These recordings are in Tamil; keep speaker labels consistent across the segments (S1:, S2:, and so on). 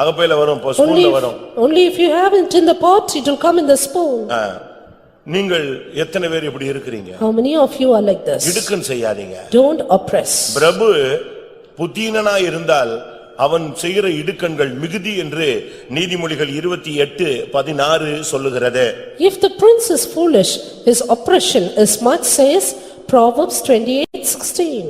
S1: அகப்பையில வரும் இப்போ
S2: Only,
S1: ஸ்பூன்ல வரும்
S2: if- only if you have it in the pot, it will come in the spoon.
S1: ஆ. நீங்கள் எத்தனை பேர் இப்படி இருக்கிறீங்க
S2: How many of you are like this?
S1: இடுக்குன்னு செய்யாதீங்க
S2: Don't oppress.
S1: பிரபு புத்தீனனா இருந்தால் அவன் செய்கிற இடுக்கண்கள் மிகுதி என்று நீதிமொழிகள் இருபத்தி எட்டு பதினாறு சொல்லுகிறது
S2: If the prince is foolish, his oppression is much says Proverbs twenty-eight sixteen.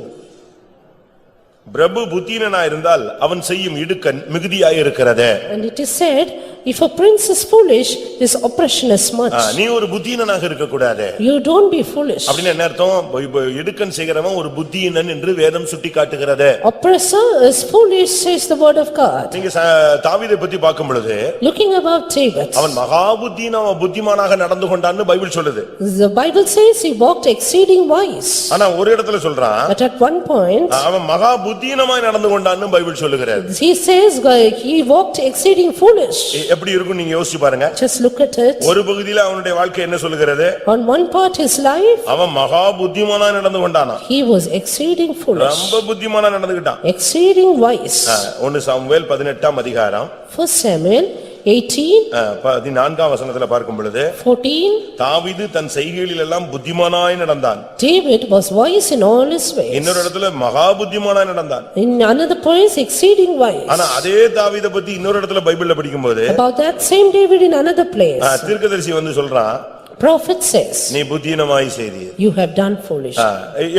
S1: பிரபு புத்தீனனா இருந்தால் அவன் செய்யும் இடுக்கண் மிகுதியாய் இருக்கிறது
S2: And it is said, if a prince is foolish, his oppression is
S1: ah,
S2: much.
S1: நீ ஒரு புத்தீனனாக இருக்கக்கூடாது
S2: You don't be foolish.
S1: அப்படின்னு என்ன அர்த்தம் இப்ப- இப்ப இடுக்கண் செய்கிறவன் ஒரு புத்தியினன் என்று வேதம் சுட்டி காட்டுகிறது
S2: Oppressor is foolish, says the word of God.
S1: நீங்க ச- தாவீதை பத்தி பார்க்கும் பொழுது
S2: Looking about David,
S1: அவன் மகா புத்தின புத்திமானாக நடந்து கொண்டான்னு பைபிள் சொல்லுது
S2: the Bible says he walked exceeding wise.
S1: ஆனா ஒரு இடத்துல சொல்றான்
S2: But at one point,
S1: அவன் மகா புத்தினமாய் நடந்து கொண்டான்னு பைபிள் சொல்லுகிறது
S2: he says uh, he walked exceeding foolish.
S1: எ- எப்படி இருக்கும் நீங்க யோசிச்சு பாருங்க
S2: Just look at it.
S1: ஒரு பகுதியில அவனுடைய வாழ்க்கை என்ன சொல்லுகிறது
S2: On one part his life,
S1: அவன் மகா புத்திமானா நடந்து கொண்டானா
S2: he was exceeding foolish,
S1: ரொம்ப புத்திமானா நடந்துகிட்டான்
S2: exceeding wise.
S1: ஆ, ஒன்னு சாமுவேல் பதினெட்டாம் அதிகாரம்
S2: First Samuel eighteen,
S1: ஆ, பதினான்காம் வசனத்துல பார்க்கும் பொழுது
S2: fourteen,
S1: தாவீது தன் செய்கைகளில் எல்லாம் புத்திமானாய் நடந்தான்
S2: David was wise in all his ways.
S1: இன்னொரு இடத்துல மகா புத்திமானாய் நடந்தான்
S2: In another place exceeding wise.
S1: ஆனா அதே தாவீதை பத்தி இன்னொரு இடத்துல பைபிள்ல படிக்கும்போது
S2: About that same David in another place,
S1: ஆ, தீர்க்கதரிசி வந்து சொல்றான்
S2: prophet says,
S1: நீ புத்தினமாய் செய்தி
S2: you have done foolish.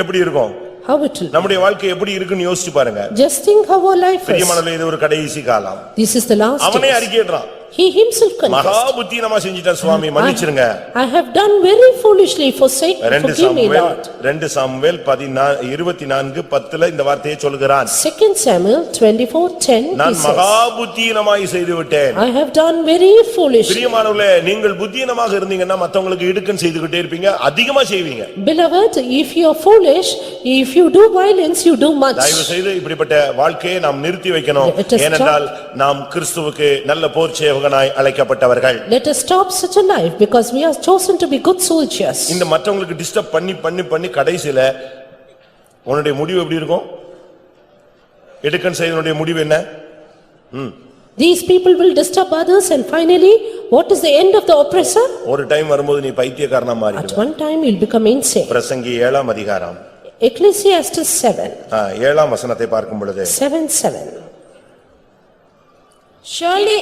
S1: எப்படி இருக்கும்
S2: How it will,
S1: நம்முடைய வாழ்க்கை எப்படி இருக்குன்னு யோசிச்சு பாருங்க
S2: just think how our life is.
S1: பிரியமானவர்களே இது ஒரு கடைசி காலம்
S2: This is the last
S1: அவனே
S2: days.
S1: அறிக்கையிடுறான்
S2: He himself
S1: மகா
S2: confessed,
S1: புத்தினமா செஞ்சிட்டான் சுவாமி மன்னிச்சிருங்க
S2: I have done very foolishly forsake,
S1: ரெண்டு
S2: Mm-hmm. forgive me
S1: சாமுவேல்
S2: Lord.
S1: ரெண்டு சாமுவேல் பதினா இருபத்தி நான்கு பத்துல இந்த வார்த்தையை சொல்கிறான்
S2: Second Samuel twenty-four ten, he
S1: நான்
S2: says,
S1: மகா புத்தினமாய் செய்து விட்டேன்
S2: I have done very foolish.
S1: பிரியமானவர்களே நீங்கள் புத்தியினமாக இருந்தீங்கன்னா மத்தவங்களுக்கு இடுக்கன் செய்துகிட்டே இருப்பீங்க அதிகமா செய்வீங்க
S2: Beloved, if you are foolish, if you do violence, you do much.
S1: தயவு செய்து இப்படிப்பட்ட வாழ்க்கையை நாம் நிறுத்தி வைக்கணும்
S2: Let us stop.
S1: ஏனென்றால் நாம் கிறிஸ்துவுக்கு நல்ல போர் சேவகனாய் அழைக்கப்பட்டவர்கள்
S2: Let us stop such a life because we are chosen to be good soldiers.
S1: இந்த மற்றவங்களுக்கு டிஸ்டர்ப் பண்ணி பண்ணி பண்ணி கடைசில உன்னுடைய முடிவு எப்படி இருக்கும் இடுக்கன் செய்தனுடைய முடிவு என்ன
S2: These people will disturb others and finally, what is the end of the oppressor?
S1: ஒரு டைம் வரும்போது நீ பைத்தியக்காரனா
S2: At
S1: மாறிடுவ
S2: one time, you'll become insane.
S1: பிரசங்கி ஏழாம் அதிகாரம்
S2: Ecclesiastes seven,
S1: ஆ, ஏழாம் வசனத்தை பார்க்கும் பொழுது
S2: seven, seven.
S3: Surely.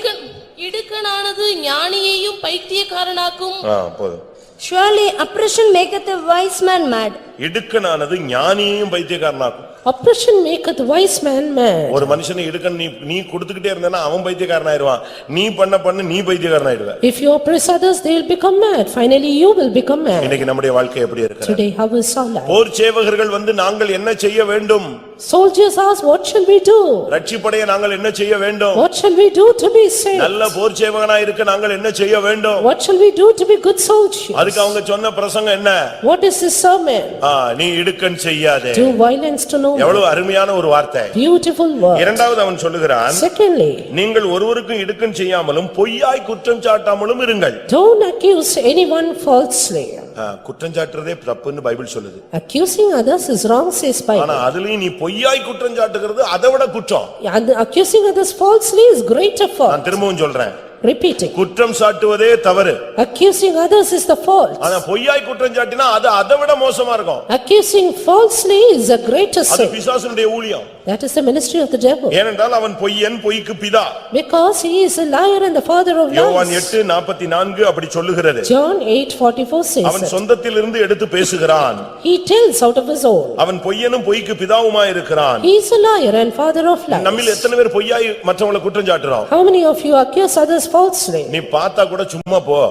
S3: இடுக்கணானது ஞானியையும் பைத்தியக்காரனாக்கும்.
S1: ஆ, போதும்
S3: Surely oppression maketh a wise man mad.
S1: இடுக்கனானது ஞானியையும் பைத்தியக்காரனாக்கும்
S2: Oppression maketh wise man mad.
S1: ஒரு மனுஷனை இடுக்கன் நீ நீ கொடுத்துக்கிட்டே இருந்தனா அவன் பைத்தியக்காரனாயிருவான் நீ பண்ண பண்ண நீ பைத்தியக்காரனாயிடுவ
S2: If you oppress others, they'll become mad. Finally, you will become mad.
S1: இன்னைக்கு நம்முடைய வாழ்க்கை எப்படி இருக்கு
S2: Today, how is our life?
S1: போர் சேவகர்கள் வந்து நாங்கள் என்ன செய்ய வேண்டும்
S2: Soldiers ask, what shall we do?
S1: ரட்சிப்படைய நாங்கள் என்ன செய்ய வேண்டும்
S2: What shall we do to be saved?
S1: நல்ல போர் சேவகனா இருக்க நாங்கள் என்ன செய்ய வேண்டும்
S2: What shall we do to be good soldiers?
S1: அதுக்கு அவங்க சொன்ன பிரசங்கம் என்ன
S2: What is this sermon?
S1: ஆ, நீ இடுக்கன் செய்யாதே
S2: Do violence to no man.
S1: எவ்வளவு அருமையான ஒரு வார்த்தை
S2: Beautiful word.
S1: இரண்டாவது அவன் சொல்லுகிறான்
S2: Secondly,
S1: நீங்கள் ஒருவருக்கும் இடுக்கன் செய்யாமலும் பொய்யாய் குற்றம் சாட்டாமலும் இருங்கள்
S2: don't accuse anyone falsely.
S1: ஆ, குற்றம் சாட்டுறதே தப்புன்னு பைபிள் சொல்லுது
S2: Accusing others is wrong says
S1: ஆனா
S2: Bible.
S1: அதுலயும் நீ பொய்யாய் குற்றம் சாட்டுகிறது அதை விட குற்றம்
S2: And Accusing others falsely is greater fault.
S1: நான் திரும்பவும் சொல்றேன்
S2: Repeating,
S1: குற்றம் சாட்டுவதே தவறு
S2: accusing others is the fault.
S1: ஆனா பொய்யாய் குற்றம் சாட்டினா அது அதை விட மோசமா இருக்கும்
S2: Accusing falsely is a greater
S1: அது
S2: sin.
S1: பிசாசனுடைய ஊழியம்
S2: That is the ministry of the devil.
S1: ஏனென்றால் அவன் பொய்யன் பொய்க்கு பிதா
S2: Because he is a liar and the father of
S1: யோவான்
S2: lies.
S1: எட்டு நாற்பத்தி நான்கு அப்படி சொல்லுகிறது
S2: John eight forty-four says
S1: அவன்
S2: it.
S1: சொந்தத்திலிருந்து எடுத்து பேசுகிறான்
S2: He tells out of his own.
S1: அவன் பொய்யனும் பொய்க்கு பிதாவுமா இருக்கிறான்
S2: He is a liar and father of
S1: நம்மில்
S2: lies.
S1: எத்தனை பேர் பொய்யாய் மற்றவங்களை குற்றம் சாட்டுறோம்
S2: How many of you accuse others falsely?
S1: நீ பார்த்தா கூட சும்மா போ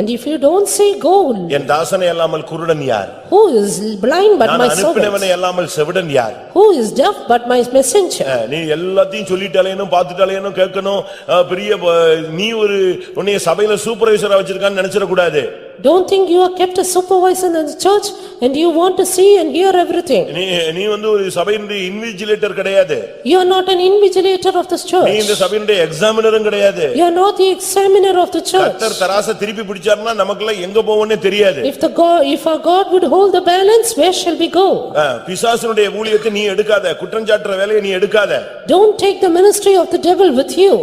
S2: And if you don't say gold,
S1: என் தாசனை அல்லாமல் குருடன் யார்
S2: who is blind but
S1: நான்
S2: my servant?
S1: அனுப்பினவனை அல்லாமல் செவிடன் யார்
S2: Who is deaf but my messenger?
S1: நீ எல்லாத்தையும் சொல்லிட்டாலேனும் பார்த்துட்டாலேனும் கேட்கணும் அஹ், பெரிய அஹ், நீ ஒரு உன்னைய சபையில சூப்பர்வைசரா வச்சிருக்கான்னு நினைச்சிட கூடாது
S2: Don't think you are kept a supervisor in the church and you want to see and hear everything.
S1: நீ நீ வந்து ஒரு சபையினுடைய இன்விஜிலேட்டர் கிடையாது
S2: You are not an invigilator of this
S1: நீ இந்த
S2: church.
S1: சபையினுடைய எக்ஸாமினரும் கிடையாது
S2: You are not the examiner of the church.
S1: கத்தர் தராச திருப்பி பிடிச்சாருன்னா நமக்கெல்லாம் எங்க போவோம்னே தெரியாது
S2: If the God, if our God would hold the balance, where shall we go?
S1: அஹ், பிசாசனுடைய ஊழியத்தை நீ எடுக்காத குற்றஞ்சாட்டுற வேலையை நீ எடுக்காத
S2: Don't take the ministry of the devil with you.